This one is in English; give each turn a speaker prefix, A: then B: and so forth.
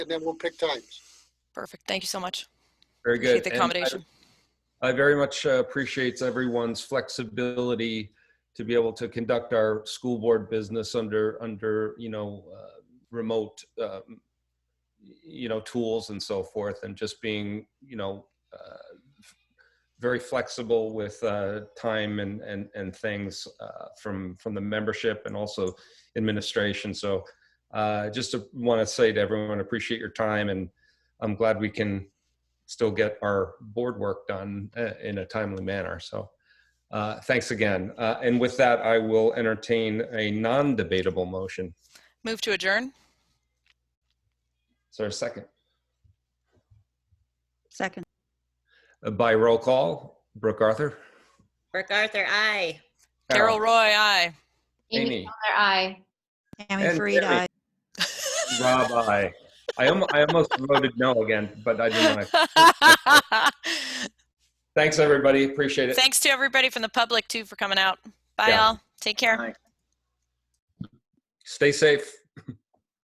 A: and then we'll pick times.
B: Perfect. Thank you so much.
C: Very good.
B: Appreciate the
C: And I-
B: accommodation.
C: I very much uh, appreciates everyone's flexibility to be able to conduct our school board business under, under, you know, uh, remote, um, you know, tools and so forth, and just being, you know, uh, f- very flexible with uh, time and, and, and things uh, from, from the membership and also administration. So uh, just want to say to everyone, appreciate your time, and I'm glad we can still get our board work done uh, in a timely manner. So, uh, thanks again. Uh, and with that, I will entertain a non-debatable motion.
B: Move to adjourn?
C: Is there a second?
D: Second.
C: Uh, By roll call, Brooke Arthur.
E: Brooke Arthur, aye.
B: Carol Roy, aye.
C: Amy.
F: Miller, aye.
D: Tammy
C: And
D: Farid,
C: Terry.
D: aye.
C: Rob, I. I, almo- I almost voted no again, but I didn't. want to. Thanks, everybody. Appreciate it.
B: Thanks to everybody from the public too for coming out. Bye
C: Yeah.
B: all. Take care.
C: Stay safe.